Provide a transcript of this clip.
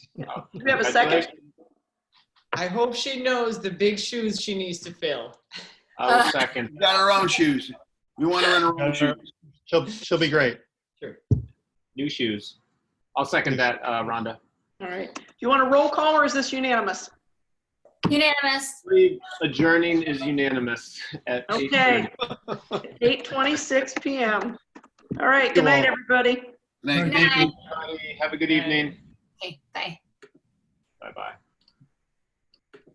Oh, Do we have a second? I hope she knows the big shoes she needs to fill. I will second. We got our own shoes. We want to run our own shoes. She'll, she'll be great. New shoes. I'll second that, uh, Rhonda. All right. Do you want a roll call or is this unanimous? Unanimous. Adjourning is unanimous at Okay. 8:26 PM. All right, good night, everybody. Thank you. Good night. 8:30. Have a good evening. Okay, bye. Bye-bye.